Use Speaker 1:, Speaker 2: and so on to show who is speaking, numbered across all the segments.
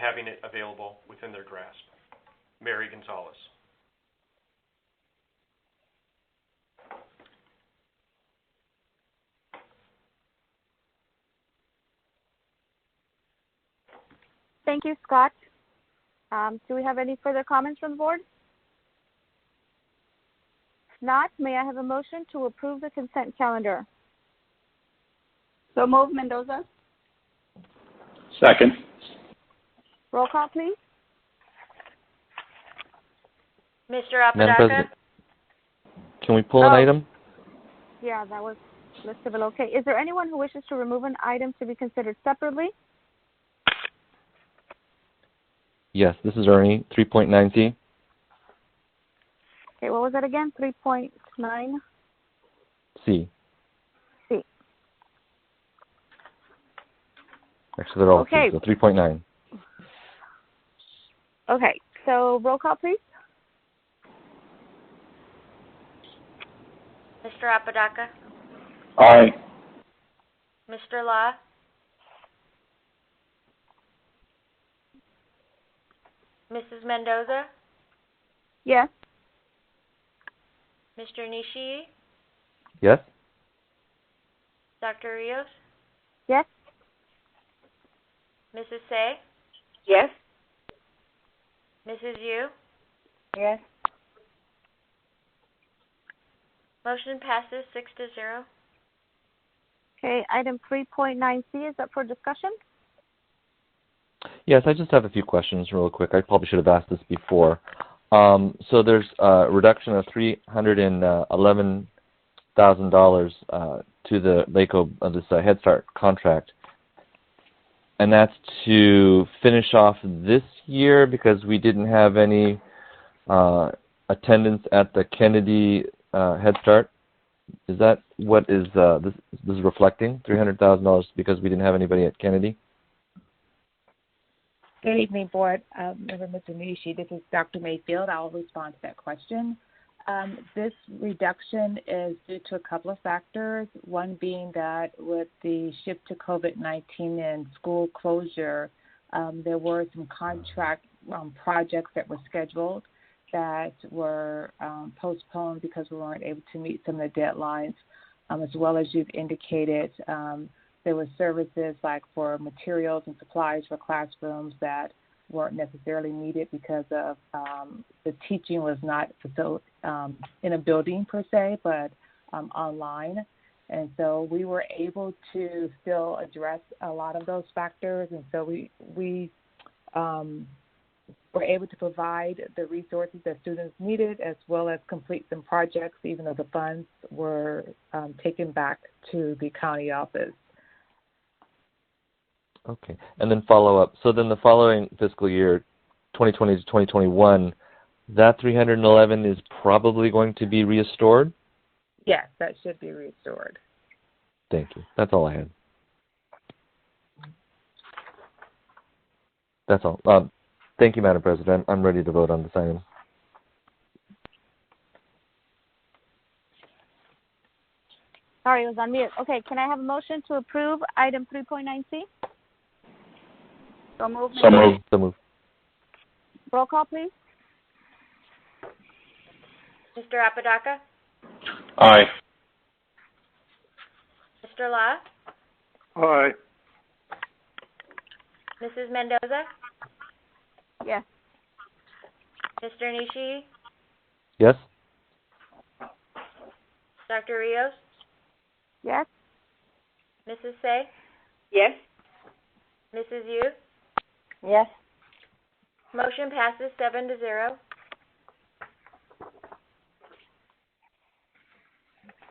Speaker 1: having it available within their grasp. Mary Gonzalez.
Speaker 2: Thank you, Scott. Um, do we have any further comments from the board? If not, may I have a motion to approve the consent calendar?
Speaker 3: So move Mendoza?
Speaker 4: Second.
Speaker 2: Roll call, please.
Speaker 5: Mr.
Speaker 6: Madam
Speaker 5: Apodaca?
Speaker 6: President, can we pull an
Speaker 2: Oh.
Speaker 6: item?
Speaker 2: Yeah, that was listed below. Okay, is there anyone who wishes to remove an item to be considered separately?
Speaker 6: Yes, this is Ernie, 3.9C.
Speaker 2: Okay, what was that again? Three point nine?
Speaker 6: C.
Speaker 2: C.
Speaker 6: Actually, they're all C,
Speaker 2: Okay.
Speaker 6: so 3.9.
Speaker 2: Okay, so roll call, please.
Speaker 5: Mr. Apodaca?
Speaker 4: Aye.
Speaker 5: Mr. Law? Mrs. Mendoza?
Speaker 2: Yes.
Speaker 5: Mr. Nishi?
Speaker 6: Yes?
Speaker 5: Dr. Rios?
Speaker 2: Yes.
Speaker 5: Mrs. Say?
Speaker 3: Yes.
Speaker 5: Mrs. Yu?
Speaker 3: Yes.
Speaker 5: Motion passes six to zero.
Speaker 2: Okay, item three point nine C is up for discussion.
Speaker 6: Yes, I just have a few questions real quick. I probably should have asked this before. Um, so there's a reduction of $311,000 uh, to the LACO, uh, this uh, Head Start contract. And that's to finish off this year because we didn't have any uh, attendance at the Kennedy uh, Head Start. Is that what is uh, this, this is reflecting? $300,000 because we didn't have anybody at Kennedy?
Speaker 7: Good evening, Board um, Member Mr. Nishi. This is Dr. Mayfield. I'll respond to that question. Um, this reduction is due to a couple of factors. One being that with the shift to COVID 19 and school closure, um, there were some contract um, projects that were scheduled that were um, postponed because we weren't able to meet some of the deadlines. Um, as well as you've indicated, um, there were services like for materials and supplies for classrooms that weren't necessarily needed because of um, the teaching was not facil- um, in a building per se, but um, online. And so we were able to still address a lot of those factors. And so we we um, were able to provide the resources that students needed, as well as complete some projects, even though the funds were um, taken back to the county office.
Speaker 6: Okay. And then follow up. So then the following fiscal year, 2020 to 2021, that 311 is probably going to be restored?
Speaker 7: Yes, that should be restored.
Speaker 6: Thank you. That's all I had. That's all. Um, thank you, Madam President. I'm ready to vote on this item.
Speaker 2: Sorry, it was on mute. Okay, can I have a motion to approve item three point nine C?
Speaker 3: So move
Speaker 4: So moved.
Speaker 6: So moved.
Speaker 2: Roll call, please.
Speaker 5: Mr. Apodaca?
Speaker 4: Aye.
Speaker 5: Mr. Law?
Speaker 1: Aye.
Speaker 5: Mrs. Mendoza?
Speaker 2: Yes.
Speaker 5: Mr. Nishi?
Speaker 6: Yes?
Speaker 5: Dr. Rios?
Speaker 2: Yes.
Speaker 5: Mrs. Say?
Speaker 3: Yes.
Speaker 5: Mrs. Yu?
Speaker 3: Yes.
Speaker 5: Motion passes seven to zero.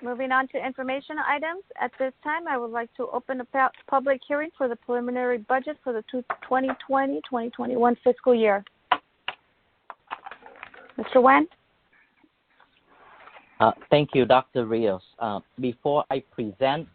Speaker 2: Moving on to information items. At this time, I would like to open a pu- public hearing for the preliminary budget for the two- 2020-2021 fiscal year. Mr. Wen?
Speaker 8: Uh, Thank you, Dr. Rios. Uh, Before I present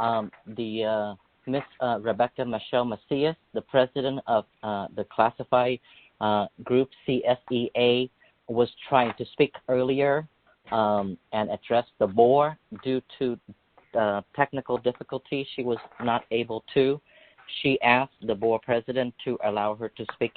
Speaker 8: um, the uh, Miss uh, Rebecca Michelle Macias, the president of uh, the classified uh, group CSEA, was trying to speak earlier um, and address the board. Due to uh, technical difficulty, she was not able to. She asked the board president to allow her to speak